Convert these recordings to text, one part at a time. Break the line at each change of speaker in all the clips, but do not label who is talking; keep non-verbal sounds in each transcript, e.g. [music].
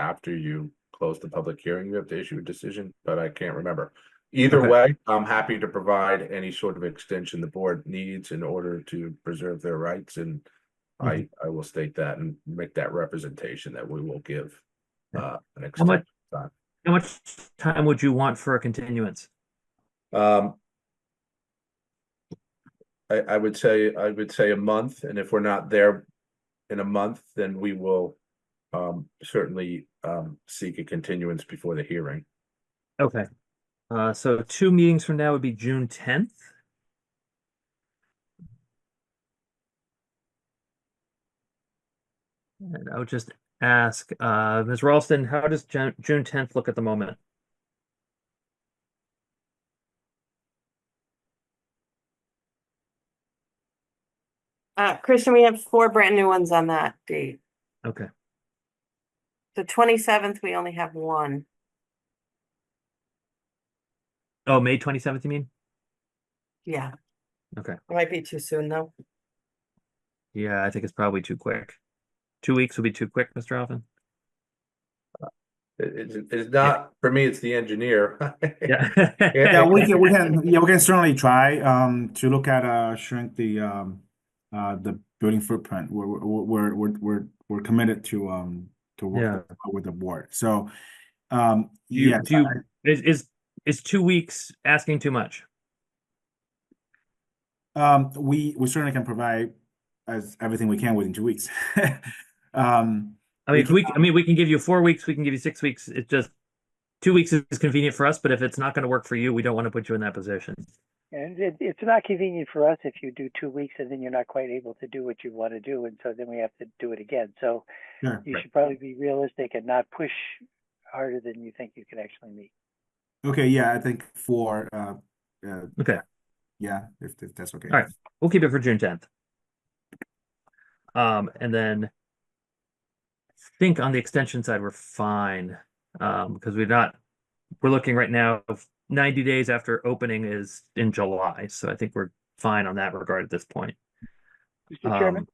after you close the public hearing, you have to issue a decision, but I can't remember. Either
Okay.
way, I'm happy to provide any sort of extension the board needs in order to preserve their rights and I,
Mm-hmm.
I will state that and make that representation that we will give uh, an
How much,
extension. time.
how much time would you want for a continuance?
Um, I, I would say, I would say a month, and if we're not there in a month, then we will um, certainly um, seek a continuance before the hearing.
Okay. Uh, so two meetings from now would be June tenth. And I would just ask, uh, Ms. Ralston, how does Ju- June tenth look at the moment?
Uh, Kristen, we have four brand new ones on that date.
Okay,
The twenty-seventh, we only have one.
oh, May twenty-seventh, you mean?
Yeah.
Okay.
Might be too soon though.
Yeah, I think it's probably too quick. Two weeks would be too quick, Mr. Alvin.
It- It's, it's not, for me, it's the engineer. [laughs]
Yeah.
Yeah, we can, we can, yeah, we can certainly try um to look at uh shrink the um uh the building footprint. We're we're we're we're we're we're committed to um to work with the board. So um
Do you,
yes,
do you, [laughs] is, is, is two weeks asking too much?
um we we certainly can provide as everything we can within two weeks. [laughs] Um
I
We
mean, if
can-
we, I mean, we can give you four weeks, we can give you six weeks. It's just two weeks is convenient for us, but if it's not going to work for you, we don't want to put you in that position.
And it, it's not convenient for us if you do two weeks and then you're not quite able to do what you want to do, and so then we have to do it again. So
sure.
you should probably be realistic and not push harder than you think you can actually meet.
Okay, yeah, I think for uh uh
Okay.
yeah, if if that's okay.
All right. We'll keep it for June tenth. Um, and then I think on the extension side, we're fine. Um, because we're not, we're looking right now of ninety days after opening is in July, so I think we're fine on that regard at this point.
Mr. Chairman,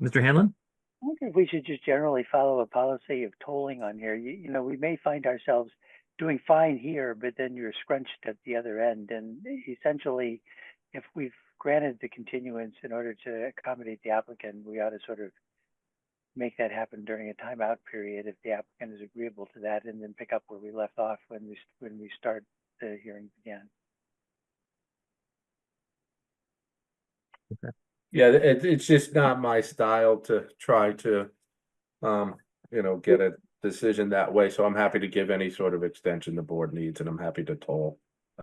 Um, Mr. Hanlon?
I wonder if we should just generally follow a policy of tolling on here. You, you know, we may find ourselves doing fine here, but then you're scrunched at the other end. And essentially, if we've granted the continuance in order to accommodate the applicant, we ought to sort of make that happen during a timeout period if the applicant is agreeable to that, and then pick up where we left off when we when we start the hearings again.
Yeah, it, it's just not my style to try to, um, you know, get a decision that way, so I'm happy to give any sort of extension the board needs, and I'm happy to toll.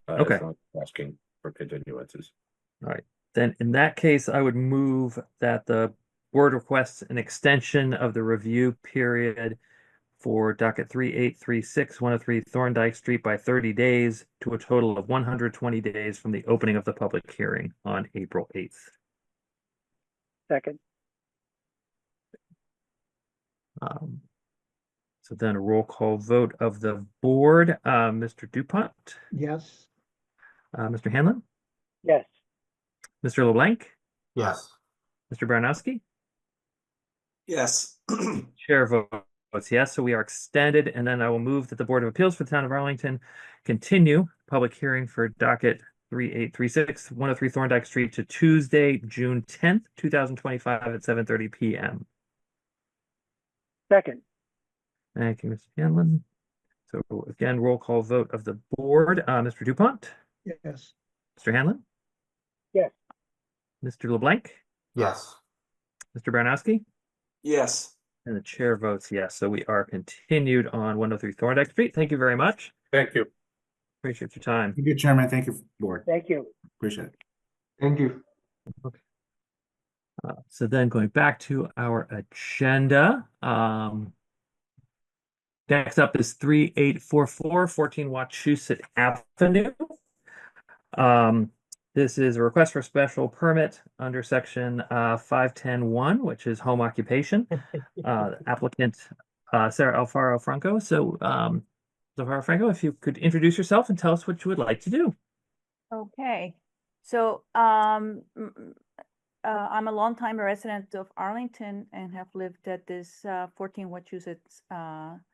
uh, as
Okay.
long as Asking for continuances.
Then in that case, I would move that the board requests an extension of the review period for docket 3836 103 Thorndike Street by thirty days to a total of one hundred twenty days from the opening of the public hearing on April eighth.
Second,
Um, so then a roll call vote of the board, uh, Mr. Dupont,
Yes.
uh, Mr. Hanlon,
yes.
Mr. LeBlanc,
Yes.
Mr. Baranowski?
Yes.
Chair votes yes, so we are extended, and then I will move that the Board of Appeals for the Town of Arlington continue public hearing for docket 3836, 103 Thorndike Street to Tuesday, June tenth, two thousand twenty-five at seven thirty PM.
Second,
Thank you, Mr. Hanlon. So again, roll call vote of the board, uh, Mr. Dupont,
Yes.
Mr. Hanlon?
Yes.
Mr. LeBlanc,
Yes.
Mr. Baranowski?
Yes.
And the chair votes yes, so we are continued on one oh three Thorndike Street. Thank you very much.
Thank you.
Appreciate your time.
Thank you, Chairman. Thank you, board.
thank you.
Appreciate it.
Thank you.
Uh, so then going back to our agenda, um, next up is 3844 14 Wachusett Avenue. Um, this is a request for special permit under section uh, 5101, which is home occupation. Uh, applicant uh, Sarah Alfaro Franco. So, um, Alfaro Franco, if you could introduce yourself and tell us what you would like to do.
Okay, so, um, m- m- uh, uh, I'm a longtime resident of Arlington and have lived at this uh, 14 Wachusett uh,